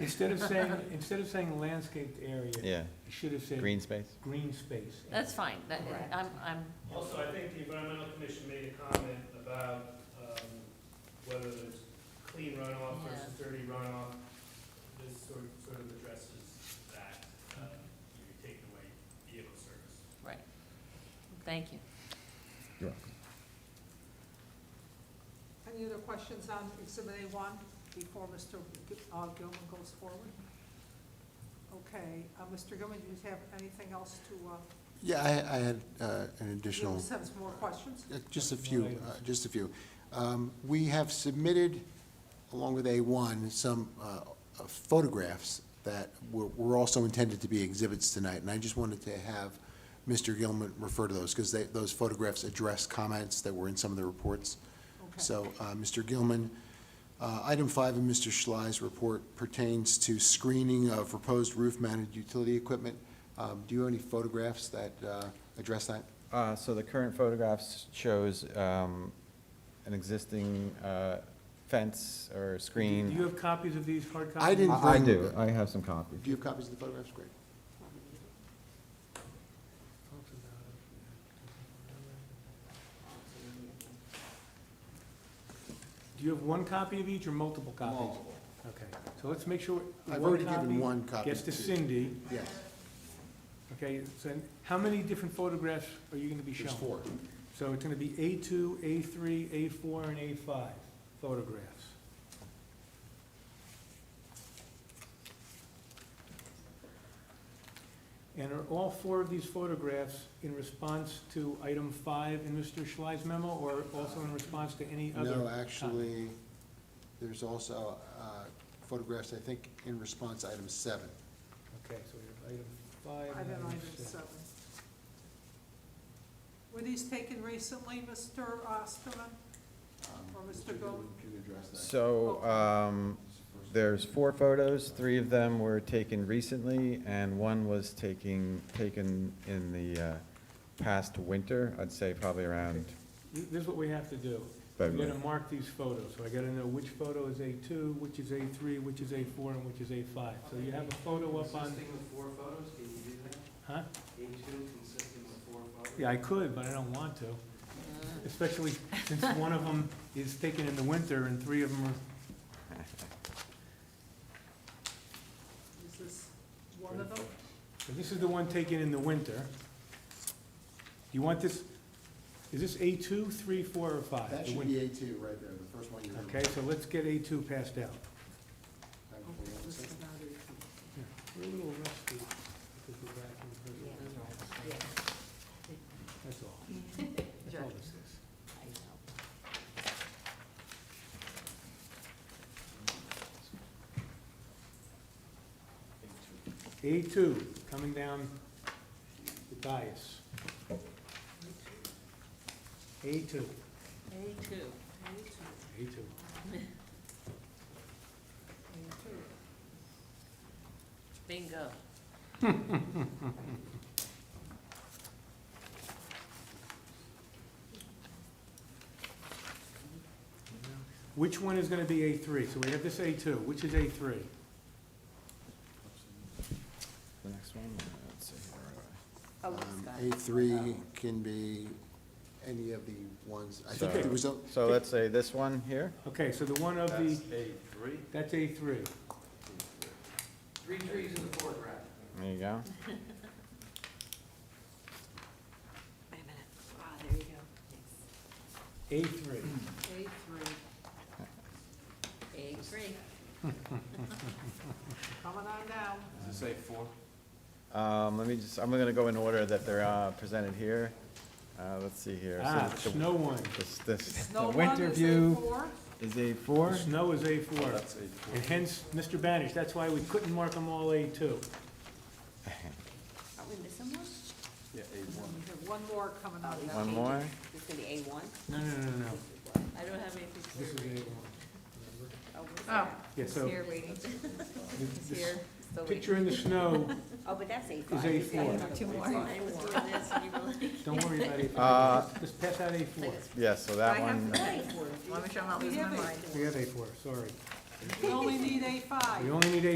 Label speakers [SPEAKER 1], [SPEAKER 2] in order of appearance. [SPEAKER 1] Instead of saying, instead of saying landscaped area, you
[SPEAKER 2] yeah,
[SPEAKER 1] should have said
[SPEAKER 2] green space.
[SPEAKER 1] green space.
[SPEAKER 3] That's fine, that,
[SPEAKER 4] Correct.
[SPEAKER 3] I'm, I'm,
[SPEAKER 5] Also, I think the environmental commission made a comment about, um, whether there's clean runoff
[SPEAKER 3] Yeah.
[SPEAKER 5] versus dirty runoff. This sort, sort of addresses that, um, you're taking away vehicle service.
[SPEAKER 3] right. Thank you.
[SPEAKER 4] Any other questions on Exhibit A1 before Mr. G- uh, Gilman goes forward? Okay, uh, Mr. Gilman, do you have anything else to, uh,
[SPEAKER 6] Yeah, I, I had uh, an
[SPEAKER 4] you have
[SPEAKER 6] additional,
[SPEAKER 4] a sense more questions?
[SPEAKER 6] uh, just a few, uh, just a few. Um, We have submitted, along with A1, some uh, photographs that were- were also intended to be exhibits tonight, and I just wanted to have Mr. Gilman refer to those, because those photographs address comments that were in some of the reports.
[SPEAKER 4] Okay.
[SPEAKER 6] So, uh, Mr. Gilman, uh, item five in Mr. Schley's report pertains to screening of proposed roof-mounted utility equipment. Um, Do you have any photographs that uh, address that?
[SPEAKER 2] Uh, so the current photographs shows, um, an existing, uh, fence or
[SPEAKER 1] Do
[SPEAKER 2] screen.
[SPEAKER 1] you have copies of these hard copies?
[SPEAKER 6] I didn't-
[SPEAKER 2] I I do, I have some copies.
[SPEAKER 6] Do you have copies of the photographs? Great.
[SPEAKER 1] Do you have one copy of each or multiple copies? Okay, so let's make sure.
[SPEAKER 6] I've
[SPEAKER 1] one
[SPEAKER 6] already given one copy.
[SPEAKER 1] Gets to Cindy,
[SPEAKER 6] Yes,
[SPEAKER 1] okay, so how many different photographs are you gonna be showing?
[SPEAKER 6] there's four.
[SPEAKER 1] So it's gonna be A two, A three, A four, and A five photographs. And are all four of these photographs in response to item five in Mr. Schley's memo, or also in response to any other?
[SPEAKER 6] No, actually, there's also uh, photographs, I think, in response to item seven.
[SPEAKER 1] Okay, so we have item five.
[SPEAKER 4] Item
[SPEAKER 1] and
[SPEAKER 4] item
[SPEAKER 1] six.
[SPEAKER 4] seven. Were these taken recently, uh, Mr. Osterman?
[SPEAKER 6] Um,
[SPEAKER 4] Or Mr. Gilman?
[SPEAKER 6] Can you address that?
[SPEAKER 2] So, um, there's four photos, three of them were taken recently, and one was taking, taken in the, uh, past winter, I'd say probably around
[SPEAKER 1] Th- This is what we have to do. I'm
[SPEAKER 2] February.
[SPEAKER 1] gonna mark these photos, so I gotta know which photo is A two, which is A three, which is A four, and which is A five. So you have a photo up on,
[SPEAKER 7] Consisting of four photos, can you do that?
[SPEAKER 1] huh?
[SPEAKER 7] A two consisting of four photos?
[SPEAKER 1] Yeah, I could, but I don't want to, especially since one of them is taken in the winter and three of them are,
[SPEAKER 4] Is this one of them?
[SPEAKER 1] so this is the one taken in the winter. You want this, is this A two, three, four, or five?
[SPEAKER 6] That
[SPEAKER 1] The
[SPEAKER 6] should
[SPEAKER 1] win-
[SPEAKER 6] be A two right there, the first one you remember.
[SPEAKER 1] Okay, so let's get A two passed out.
[SPEAKER 4] Okay, this is not it.
[SPEAKER 1] We're a little rusty because we're back in the prison. That's all. That's all this is. A two, coming down the dais. A two,
[SPEAKER 3] A two.
[SPEAKER 4] Me too.
[SPEAKER 1] A two.
[SPEAKER 4] Me too.
[SPEAKER 3] Bingo.
[SPEAKER 1] Which one is gonna be A three? So we have this A two, which is A three?
[SPEAKER 2] The next one, let's see, where are we?
[SPEAKER 3] Oh,
[SPEAKER 6] Um,
[SPEAKER 3] Scott.
[SPEAKER 6] A three can be any of the ones, I think
[SPEAKER 2] So-
[SPEAKER 6] there was, a-
[SPEAKER 2] So let's say this one here,
[SPEAKER 1] Okay, so the one of the,
[SPEAKER 7] A three?
[SPEAKER 1] that's A three.
[SPEAKER 7] Three trees in the foreground.
[SPEAKER 2] there you go.
[SPEAKER 3] Wait a minute. Ah, there you go.
[SPEAKER 1] A three.
[SPEAKER 4] A
[SPEAKER 3] A
[SPEAKER 4] three,
[SPEAKER 3] three.
[SPEAKER 4] coming on down.
[SPEAKER 7] Does it say four?
[SPEAKER 2] Um, let me just, I'm gonna go in order that they're, uh, presented here. Uh, let's see here. So
[SPEAKER 1] Ah,
[SPEAKER 2] the-
[SPEAKER 1] snow one.
[SPEAKER 2] This, this,
[SPEAKER 4] Snow
[SPEAKER 2] the
[SPEAKER 4] one
[SPEAKER 2] winter
[SPEAKER 4] is A
[SPEAKER 2] view
[SPEAKER 4] four.
[SPEAKER 2] is A four.
[SPEAKER 1] Snow is A four.
[SPEAKER 7] That's a four.
[SPEAKER 1] And hence, Mr. Banish, that's why we couldn't mark them all A two.
[SPEAKER 3] Are we missing one?
[SPEAKER 7] Yeah, A
[SPEAKER 4] We have one more coming on down.
[SPEAKER 2] One more.
[SPEAKER 3] It's gonna be A one?
[SPEAKER 1] No, no, no, no,
[SPEAKER 3] I don't have
[SPEAKER 1] this
[SPEAKER 3] anything
[SPEAKER 1] is
[SPEAKER 3] to
[SPEAKER 1] A
[SPEAKER 3] read.
[SPEAKER 1] one.
[SPEAKER 3] Oh, where's
[SPEAKER 4] Oh.
[SPEAKER 3] that?
[SPEAKER 1] Yeah,
[SPEAKER 3] It's
[SPEAKER 1] so-
[SPEAKER 3] Here waiting. It's
[SPEAKER 1] This- this
[SPEAKER 3] here. Still waiting.
[SPEAKER 1] Picture in the snow,
[SPEAKER 3] Oh, but that's A
[SPEAKER 1] is
[SPEAKER 3] five.
[SPEAKER 1] A
[SPEAKER 3] You've got
[SPEAKER 1] four.
[SPEAKER 3] another
[SPEAKER 4] Two
[SPEAKER 3] one.
[SPEAKER 4] more.
[SPEAKER 3] I was doing this and you were like.
[SPEAKER 1] don't worry about A four,
[SPEAKER 2] Uh,
[SPEAKER 1] Just- just pass out A four.
[SPEAKER 2] Yeah, so that one, uh,
[SPEAKER 3] Let me show
[SPEAKER 4] We have
[SPEAKER 1] We have A four, sorry.
[SPEAKER 4] A, we only need A five.
[SPEAKER 1] We only need A